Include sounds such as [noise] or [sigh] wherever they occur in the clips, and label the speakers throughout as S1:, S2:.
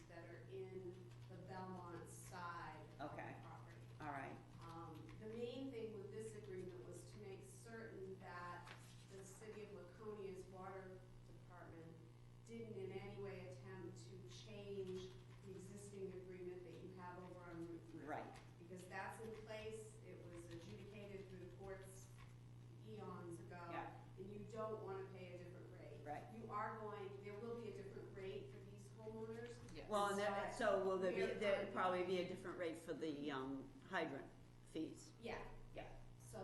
S1: Um, don't wanna pay a different rate.
S2: Right.
S1: You are going, there will be a different rate for these homeowners.
S3: Yes.
S2: Well, and then, so will there be,
S1: We're fine.
S2: there'd probably be a different rate for the, um, hydrant fees.
S1: Yeah.
S2: Yeah.
S1: So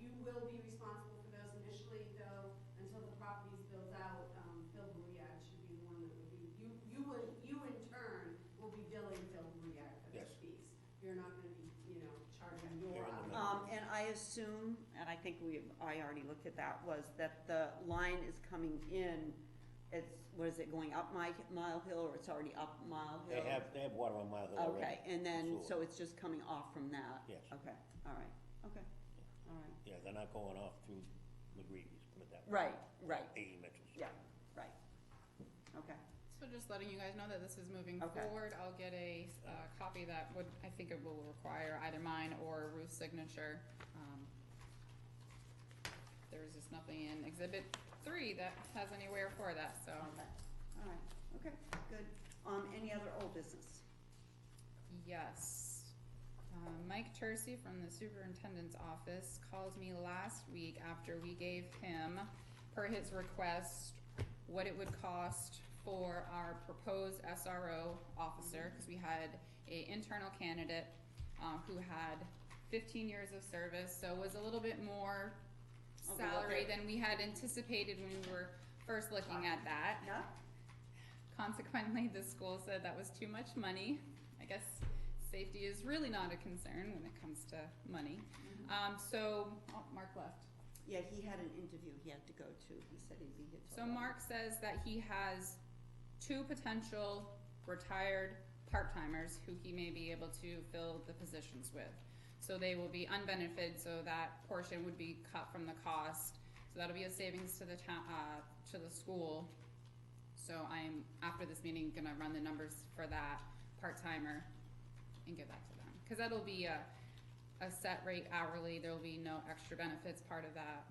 S1: you will be responsible for those initially, though, until the property's built out, um, Phil Bouillard should be the one that would be, you, you would, you in turn will be billing Phil Bouillard for those
S4: Yes.
S1: fees. You're not gonna be, you know, charging your.
S4: They're in the
S2: Um,
S4: middle.
S2: and I assume, and I think we, I already looked at that, was that the line is coming in, it's, what is it, going up Mi- Mile Hill, or it's already up Mile
S4: They
S2: Hill?
S4: have, they have water on Mile Hill already.
S2: Okay, Um, and then, so
S4: Sewer.
S2: it's just coming off from that?
S4: Yes.
S2: Okay, all right, okay, all right,
S4: Yeah, they're not going off through McGreevy's, put it that way.
S2: right, right,
S4: Eighty meters.
S2: yeah, right, okay,
S3: So just letting you guys know that this is moving
S2: Okay.
S3: forward, I'll get a, uh, copy that would, I think it will require either mine or Ruth's signature. Um, There's just nothing in exhibit three that has anywhere for that, so.
S2: okay, all right, okay, good. Um, any other old business?
S3: Yes. Uh, Mike Tercey from the superintendent's office called me last week after we gave him, per his request, what it would cost for our proposed SRO officer, because we had a internal candidate, um, who had fifteen years of service, so was a little bit more
S2: Over what
S3: salary
S2: they-
S3: than we had anticipated when we were first looking at that.
S2: Yeah?
S3: Consequently, the school said that was too much money. I guess safety is really not a concern when it comes to money. Um, so, oh, Mark left.
S2: Yeah, he had an interview he had to go to, he said he'd be here till.
S3: So
S2: eleven.
S3: Mark says that he has two potential retired part-timers who he may be able to fill the positions with. So they will be unbenefited, so that portion would be cut from the cost. So that'll be a savings to the town, uh, to the school. So I'm, after this meeting, gonna run the numbers for that part-timer and give that to them. Cause that'll be a, a set rate hourly, there'll be no extra benefits part of that.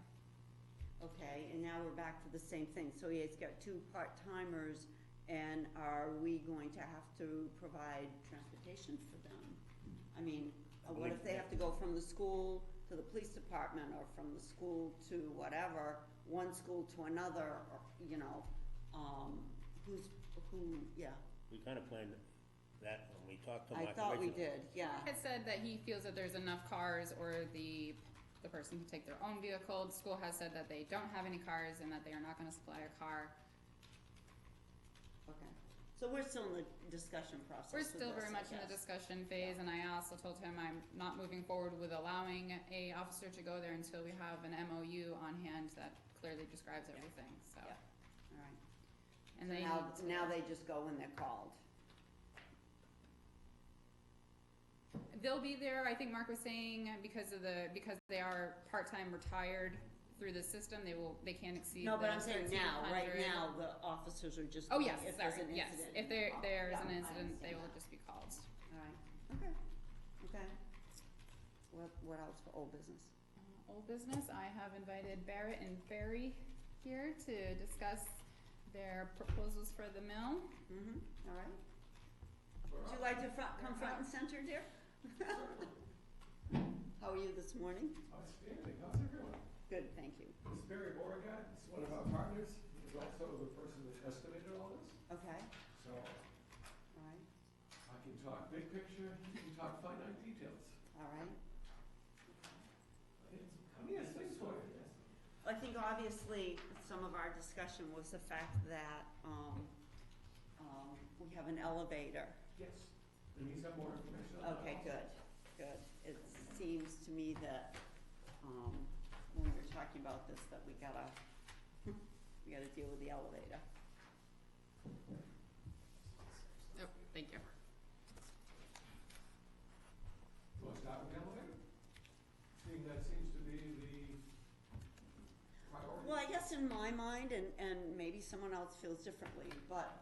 S2: Okay, and now we're back to the same thing, so he's got two part-timers, and are we going to have to provide transportation for them? I mean, uh, what if they have to go from the school to the police department, or from the school to whatever, one school to another, or, you know, um, who's, who, yeah,
S4: We kinda planned that when we talked to
S2: I
S4: Mike
S2: thought we
S4: originally.
S2: did, yeah,
S3: had said that he feels that there's enough cars or the, the person can take their own vehicle. The school has said that they don't have any cars and that they are not gonna supply a car.
S2: okay. So we're still in the discussion process
S3: We're
S2: with
S3: still very
S2: this, I
S3: much in the
S2: guess.
S3: discussion phase and I also told him I'm not moving forward with allowing a officer to go there until we have an MOU on hand that clearly describes everything, so.
S2: Yeah. All right.
S3: And
S2: So
S3: they
S2: now,
S3: need to-
S2: now they just go when they're called.
S3: They'll be there, I think Mark was saying, because of the, because they are part-time retired through the system, they will, they can't exceed
S2: No, but
S3: the
S2: I'm saying now, right
S3: 1,300.
S2: now, the officers are just.
S3: Oh,
S2: going,
S3: yes,
S2: if there's
S3: sorry,
S2: an
S3: yes.
S2: incident,
S3: If there,
S2: call.
S3: there is
S2: Yeah,
S3: an
S2: I
S3: incident, they
S2: understand
S3: will
S2: that.
S3: just be called.
S2: All right, okay, okay. What, what else for old business?
S3: Uh, Old business, I have invited Barrett and Barry here to discuss their proposals for the mill.
S2: Mm-hmm, all right. Would you like to front, come front and center, dear? [laughs] How are you this morning?
S5: Oh, Outstanding, how's everyone?
S2: Good, thank you.
S5: This is Barry Beauregard, he's one of our partners, he's also the person that estimated all this,
S2: Okay,
S5: so I
S2: all right,
S5: can talk big picture, he can talk finite details.
S2: all right.
S5: He has things for you.
S2: I think obviously, some of our discussion was the fact that, um, um, we have an elevator.
S5: Yes, and he's got more information on that.
S2: Okay, good, good. It seems to me that, um, when we were talking about this, that we gotta, we gotta deal with the elevator.
S3: Oh, thank you.
S5: You want to start with elevator? Seeing that seems to be the priority.
S2: Well, I guess in my mind, and, and maybe someone else feels differently, but